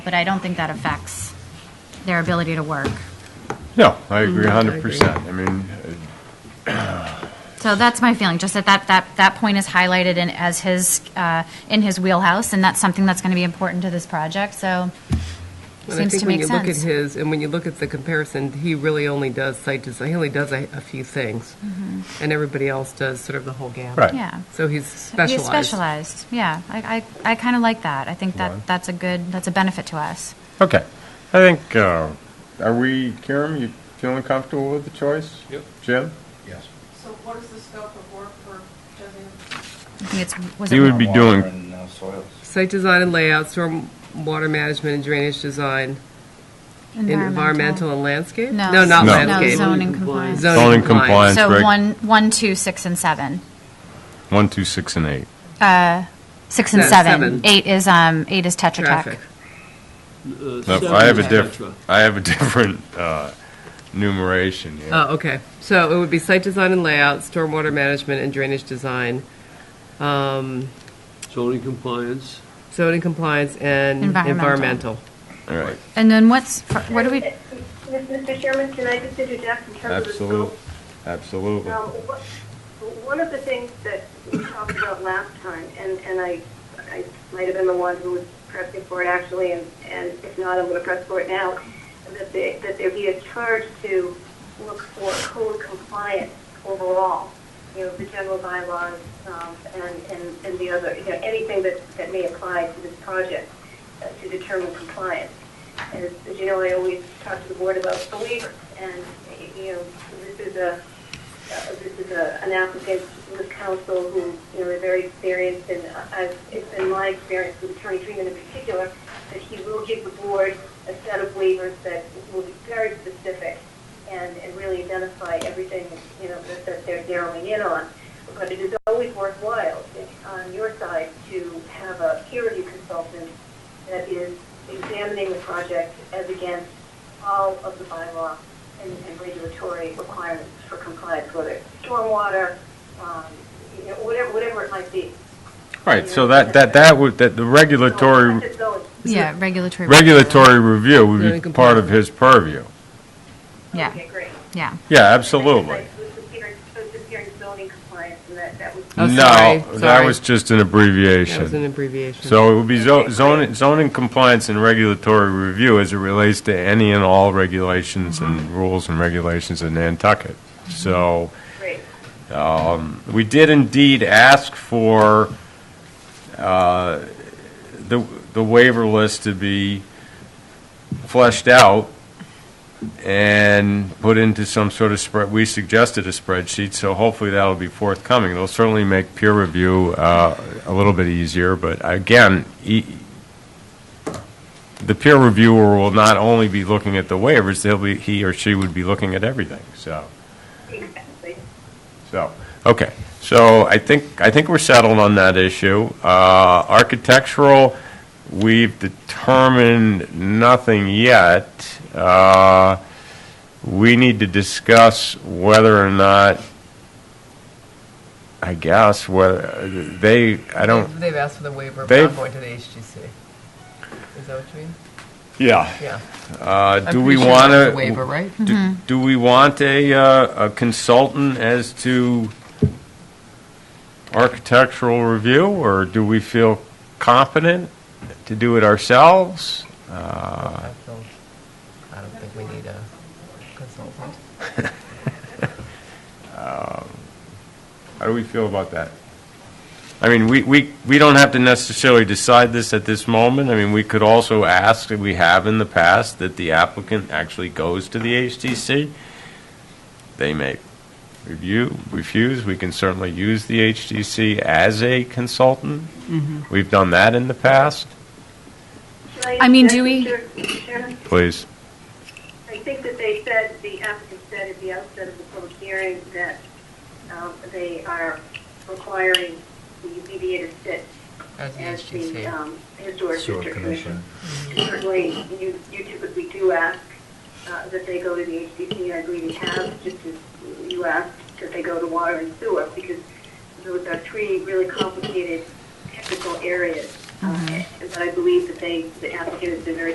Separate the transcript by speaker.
Speaker 1: but I don't think that affects their ability to work.
Speaker 2: No, I agree a hundred percent. I mean, uh,
Speaker 1: So that's my feeling, just that that, that, that point is highlighted in, as his, uh, in his wheelhouse, and that's something that's going to be important to this project, so seems to make
Speaker 3: And I think when you look
Speaker 1: sense.
Speaker 3: at his, and when you look at the comparison, he really only does site design, he only does a, a few things. And everybody else does sort of the whole gamut.
Speaker 2: Right.
Speaker 1: Yeah.
Speaker 3: So he's specialized.
Speaker 1: Mm-hmm. He's specialized, yeah. I, I, I kind of like that. I think that,
Speaker 2: Right.
Speaker 1: that's a good, that's a benefit to us.
Speaker 2: okay. I think, uh, are we, Karen, you feeling comfortable with the choice? Yep. Jim?
Speaker 4: Yes.
Speaker 5: So what is the scope of work for Jesse?
Speaker 1: I think it's, was
Speaker 2: He would
Speaker 1: it,
Speaker 2: be doing-
Speaker 4: Groundwater and, uh, soils.
Speaker 3: Site design and layout, storm water management and drainage design, and environmental and landscape?
Speaker 1: No.
Speaker 3: not
Speaker 2: No.
Speaker 3: landscape.
Speaker 1: No, zoning compliance.
Speaker 2: Zoning compliance,
Speaker 1: So
Speaker 2: right?
Speaker 1: one, one, two, six, and seven. Uh,
Speaker 2: One, two, six, and eight.
Speaker 1: Six and
Speaker 3: No,
Speaker 1: seven.
Speaker 3: seven.
Speaker 1: Eight is, um, eight is Tetra Tech.
Speaker 3: Traffic.
Speaker 6: Uh,
Speaker 2: No, I have a different, I have a different, uh, numeration here.
Speaker 3: Oh, okay. So it would be site design and layout, stormwater management and drainage design, um,
Speaker 6: Zoning compliance,
Speaker 3: zoning compliance and
Speaker 1: Environmental.
Speaker 3: environmental.
Speaker 2: All right.
Speaker 1: And then what's, what do we,
Speaker 5: Mr. Chairman, can I just interject in terms of the scope?
Speaker 2: Absolutely, absolutely.
Speaker 5: Um, what- One of the things that we talked about last time, and, and I, I might have been the one who was pressing for it actually, and, and if not, I'm going to press for it now, that there, that there be a charge to look for code compliance overall, you know, the general bylaws, um, and, and, and the other, you know, anything that, that may apply to this project uh, to determine compliance. As, as you know, I always talk to the board about the waivers, and, you know, this is a, uh, this is a, an applicant with counsel who, you know, are very experienced, and I've, it's been my experience with Attorney Freeman in particular, that he will give the board a set of waivers that will be very specific and, and really identify everything, you know, that, that they're narrowing in on. But it is always worthwhile uh, on your side to have a peer review consultant that is examining the project as against all of the bylaw and and regulatory requirements for compliance, whether it's stormwater, um, you know, whatever, whatever it might be.
Speaker 2: All right, so that, that, that would, that the
Speaker 5: So,
Speaker 2: regulatory,
Speaker 5: that's those.
Speaker 1: yeah, regulatory.
Speaker 2: regulatory review would be
Speaker 3: Zoning
Speaker 2: part of his purview.
Speaker 1: Yeah,
Speaker 5: Okay, great.
Speaker 1: yeah.
Speaker 2: Yeah, absolutely.
Speaker 5: This is hearing- this is hearing zoning compliance, and that, that was.
Speaker 3: Oh,
Speaker 2: No,
Speaker 3: sorry,
Speaker 2: that
Speaker 3: sorry.
Speaker 2: was just an
Speaker 3: That was an
Speaker 2: abbreviation.
Speaker 3: abbreviation.
Speaker 2: So it would be zo- zoning, zoning compliance and regulatory review as it relates to any and all regulations and rules and regulations in Nantucket. So
Speaker 5: Great.
Speaker 2: we did indeed ask for uh, the the waiver list to be fleshed out and put into some sort of spread, we suggested a spreadsheet, so hopefully that'll be forthcoming. It'll certainly make peer review uh, a little bit easier, but again, e- the peer reviewer will not only be looking at the waivers, they'll be, he or she would be looking at everything, so.
Speaker 5: Exactly.
Speaker 2: So, okay, so I think, I think we're settled on that issue. Uh, Architectural, we've determined nothing yet. Uh, We need to discuss whether or not, I guess, whether, they, I don't,
Speaker 3: They've asked for the waiver, but
Speaker 2: They've-
Speaker 3: I'm going to the HGC. Is that what you mean?
Speaker 2: yeah.
Speaker 3: Yeah.
Speaker 2: Uh,
Speaker 3: I'm
Speaker 2: Do we
Speaker 3: pretty sure
Speaker 2: want
Speaker 3: that's
Speaker 2: to?
Speaker 3: a waiver, right?
Speaker 2: Do- Do we want a uh, a consultant as to architectural review, or do we feel competent to do it ourselves? Uh,
Speaker 3: I don't- I don't think we need a consultant.
Speaker 2: How do we feel about that? I mean, we we we don't have to necessarily decide this at this moment. I mean, we could also ask, and we have in the past, that the applicant actually goes to the HTC. They may review, refuse. We can certainly use the HTC as a consultant. We've done that in the past.
Speaker 5: Should I
Speaker 1: I mean,
Speaker 5: interject,
Speaker 1: do we-
Speaker 5: Mr. Chairman?
Speaker 2: Please.
Speaker 5: I think that they said, the applicant said at the outset of the public hearing that um, they are requiring the UPDA to sit
Speaker 3: As the
Speaker 5: as the
Speaker 3: HGC.
Speaker 5: um, Historic
Speaker 4: Sewer
Speaker 5: District Commission.
Speaker 4: Commission.
Speaker 5: Certainly, you you typically do ask uh, that they go to the HDC, I agree we have, just as you asked that they go to water and sewer, because those are three really
Speaker 3: Mm-hmm.
Speaker 5: complicated technical areas. Uh, But I believe that they, the applicant has been very